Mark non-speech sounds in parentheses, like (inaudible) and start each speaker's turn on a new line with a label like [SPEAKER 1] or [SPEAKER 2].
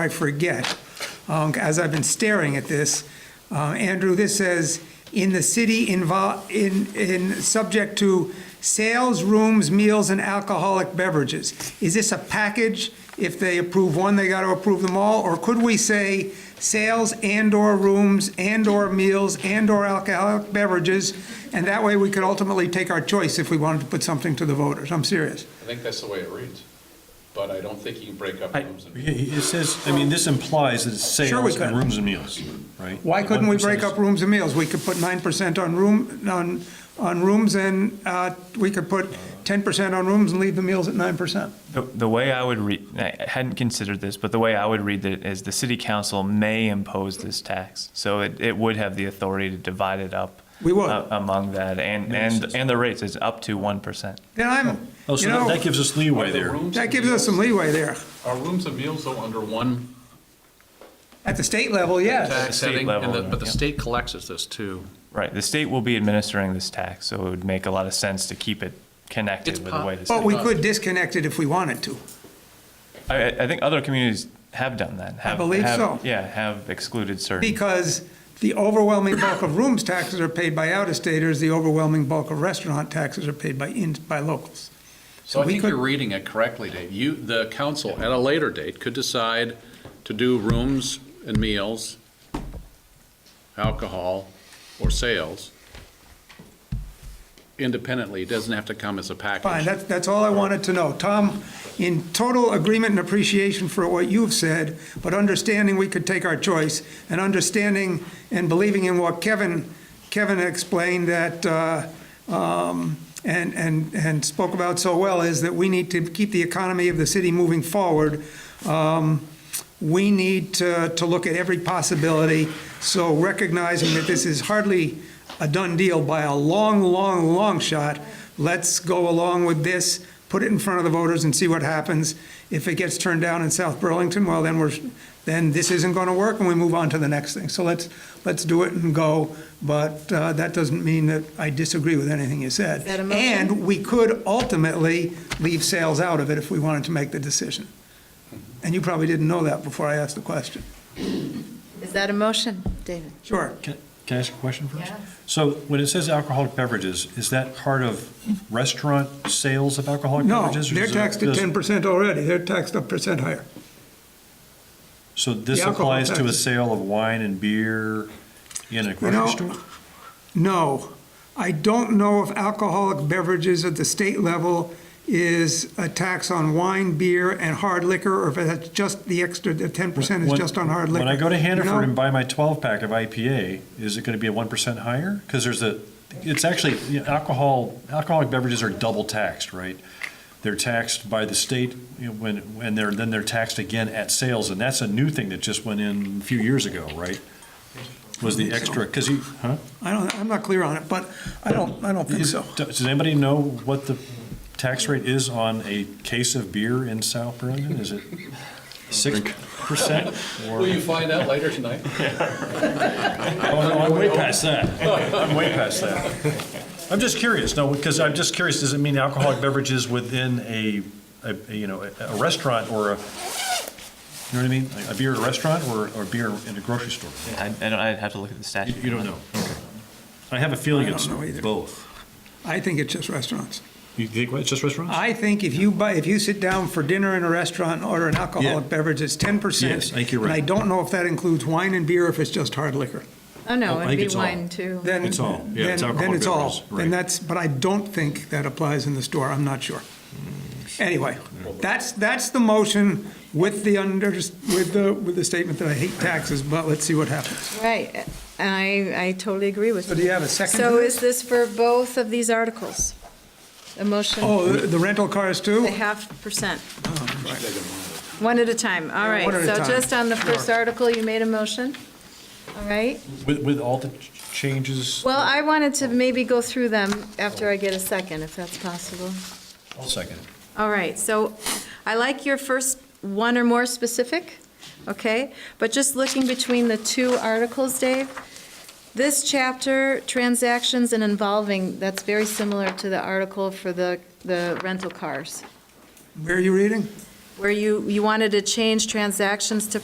[SPEAKER 1] I forget, um, as I've been staring at this. Uh, Andrew, this says, "In the city invol, in, in, subject to sales, rooms, meals, and alcoholic beverages." Is this a package? If they approve one, they got to approve them all? Or could we say, "Sales and/or rooms and/or meals and/or alcoholic beverages"? And that way, we could ultimately take our choice if we wanted to put something to the voters. I'm serious.
[SPEAKER 2] I think that's the way it reads, but I don't think you can break up
[SPEAKER 3] I-
[SPEAKER 2] rooms and.
[SPEAKER 3] It says, I mean, this implies that it's
[SPEAKER 1] Sure we
[SPEAKER 3] sales and
[SPEAKER 1] could.
[SPEAKER 3] rooms and meals, right?
[SPEAKER 1] Why couldn't we break
[SPEAKER 3] 1%
[SPEAKER 1] up rooms and meals? We could put nine percent on room, on, on rooms and, uh, we could put ten percent on rooms and leave the meals at nine percent.
[SPEAKER 4] The, the way I would read, I hadn't considered this, but the way I would read it is the city council may impose this tax. So it, it would have the authority to divide it up.
[SPEAKER 1] We would.
[SPEAKER 4] a- Among that and, and, and the rates is up to 1%.
[SPEAKER 1] Then I'm,
[SPEAKER 3] Oh,
[SPEAKER 1] you
[SPEAKER 3] so that-
[SPEAKER 1] know,
[SPEAKER 3] that gives us leeway
[SPEAKER 2] Are the
[SPEAKER 3] there.
[SPEAKER 2] rooms
[SPEAKER 1] that
[SPEAKER 2] and
[SPEAKER 1] gives us some
[SPEAKER 2] meals-
[SPEAKER 1] leeway there.
[SPEAKER 2] Are rooms and meals though under one
[SPEAKER 1] At the state level, yes.
[SPEAKER 2] tax
[SPEAKER 4] state
[SPEAKER 2] setting? And the-
[SPEAKER 4] level,
[SPEAKER 2] But the
[SPEAKER 4] yeah.
[SPEAKER 2] state collects us this too.
[SPEAKER 4] Right. The state will be administering this tax, so it would make a lot of sense to keep it
[SPEAKER 2] It's
[SPEAKER 4] connected with the
[SPEAKER 2] pop-
[SPEAKER 4] way the
[SPEAKER 1] But
[SPEAKER 4] city.
[SPEAKER 1] we could disconnect it if we wanted to.
[SPEAKER 4] I, I think other communities have done that. have-
[SPEAKER 1] Oh. believe
[SPEAKER 4] have-
[SPEAKER 1] so.
[SPEAKER 4] Yeah, have excluded certain.
[SPEAKER 1] Because the overwhelming bulk of rooms taxes are paid by out-of-staters, the overwhelming bulk of restaurant taxes are paid by in, by locals.
[SPEAKER 2] So I
[SPEAKER 1] we
[SPEAKER 2] think
[SPEAKER 1] could-
[SPEAKER 2] you're reading it correctly, Dave. You, the council at a later date could decide to do rooms and meals, alcohol, or sales independently. It doesn't have to come as a package.
[SPEAKER 1] Fine, that's, that's all I wanted to know. Tom, in total agreement and appreciation for what you've said, but understanding we could take our choice, and understanding and believing in what Kevin, Kevin explained that, uh, um, and, and, and spoke about so well, is that we need to keep the economy of the city moving forward. Um, We need to, to look at every possibility, so recognizing that this is hardly a done deal by a long, long, long shot, let's go along with this, put it in front of the voters and see what happens. If it gets turned down in South Burlington, well, then we're, then this isn't going to work and we move on to the next thing. So let's, let's do it and go, but uh, that doesn't mean that I disagree with anything you said.
[SPEAKER 5] that a motion?
[SPEAKER 1] And we could ultimately leave sales out of it if we wanted to make the decision. And you probably didn't know that before I asked the question.
[SPEAKER 5] Is that a motion, David?
[SPEAKER 1] Sure.
[SPEAKER 3] Can can I ask a question first?
[SPEAKER 5] Yes.
[SPEAKER 3] So when it says alcoholic beverages, is that part of restaurant sales of alcoholic
[SPEAKER 1] No,
[SPEAKER 3] beverages? or
[SPEAKER 1] they're
[SPEAKER 3] does it-
[SPEAKER 1] taxed at
[SPEAKER 3] does-
[SPEAKER 1] ten percent already. They're taxed a percent higher.
[SPEAKER 3] So this
[SPEAKER 1] the alcohol
[SPEAKER 3] applies to a
[SPEAKER 1] tax.
[SPEAKER 3] sale of wine and beer in a
[SPEAKER 1] know,
[SPEAKER 3] grocery store?
[SPEAKER 1] No, I don't know if alcoholic beverages at the state level is a tax on wine, beer, and hard liquor, or if that's just the extra, the ten percent is
[SPEAKER 3] When-
[SPEAKER 1] just on hard liquor.
[SPEAKER 3] When I go to
[SPEAKER 1] You
[SPEAKER 3] Hannaford
[SPEAKER 1] know?
[SPEAKER 3] and buy my 12-pack of IPA, is it going to be a 1% higher? Because there's a, it's actually, you know, alcohol, alcoholic beverages are double taxed, right? They're taxed by the state you know, when, and they're, then they're taxed again at sales, and that's a new thing that just went in a few years ago, right? Was the extra, because you, huh?
[SPEAKER 1] I don't, I'm not clear on it, but I don't, I don't think
[SPEAKER 3] Is-
[SPEAKER 1] so.
[SPEAKER 3] Does anybody know what the tax rate is on a case of beer in South Burlington? Is it 6%? or-
[SPEAKER 2] Will you find out later tonight?
[SPEAKER 3] Oh, no, I'm way past that. I'm way past that. (laughs) I'm just curious, no, because I'm just curious, does it mean alcoholic beverages within a, a- a, you know, a a restaurant or a, you know what I mean? A beer at a restaurant or, or beer in a grocery store?
[SPEAKER 4] I, I don't, I'd have to look at
[SPEAKER 3] You
[SPEAKER 4] the statute.
[SPEAKER 3] you don't know? Okay. I have a feeling
[SPEAKER 1] I don't
[SPEAKER 3] it's
[SPEAKER 1] know either.
[SPEAKER 3] both.
[SPEAKER 1] I think it's just restaurants.
[SPEAKER 3] You think, what, it's just restaurants?
[SPEAKER 1] I think if you buy, if you sit down for dinner in a restaurant and order an alcoholic
[SPEAKER 3] Yeah.
[SPEAKER 1] beverage, it's ten percent.
[SPEAKER 3] Yes, I think you're right.
[SPEAKER 1] And I don't know if that includes wine and beer, or if it's just hard liquor.
[SPEAKER 5] Oh,
[SPEAKER 3] Oh,
[SPEAKER 5] no,
[SPEAKER 3] I
[SPEAKER 5] it'd
[SPEAKER 3] think
[SPEAKER 5] be
[SPEAKER 3] it's all.
[SPEAKER 5] wine, too.
[SPEAKER 1] Then
[SPEAKER 3] It's all. Yeah, it's
[SPEAKER 1] then-
[SPEAKER 3] alcoholic
[SPEAKER 1] Then it's all.
[SPEAKER 3] beverages, right.
[SPEAKER 1] Then that's, but I don't think that applies in the store, I'm not sure.
[SPEAKER 3] Mm.
[SPEAKER 1] Anyway, that's, that's the motion with the under, with the, with the statement that I hate taxes, but let's see what happens.
[SPEAKER 5] Right, I, I totally agree with
[SPEAKER 1] So
[SPEAKER 5] you.
[SPEAKER 1] do you have a second to
[SPEAKER 5] So
[SPEAKER 1] this?
[SPEAKER 5] is this for both of these articles? A motion,
[SPEAKER 1] Oh,
[SPEAKER 5] the
[SPEAKER 1] the the rental cars too?
[SPEAKER 5] half percent? One at a time, all
[SPEAKER 1] Yeah,
[SPEAKER 5] right.
[SPEAKER 1] one at a time.
[SPEAKER 5] So just on the first
[SPEAKER 1] Sure.
[SPEAKER 5] article, you made a motion, all right?
[SPEAKER 3] With, with all the ch- changes?
[SPEAKER 5] Well, I wanted to maybe go through them after I get a second, if that's possible.
[SPEAKER 3] I'll second.
[SPEAKER 5] All right, so I like your first one or more specific, okay? But just looking between the two articles, Dave, this chapter, transactions and involving, that's very similar to the article for the, the rental cars,
[SPEAKER 1] Where are you reading?
[SPEAKER 5] where you, you wanted to change transactions to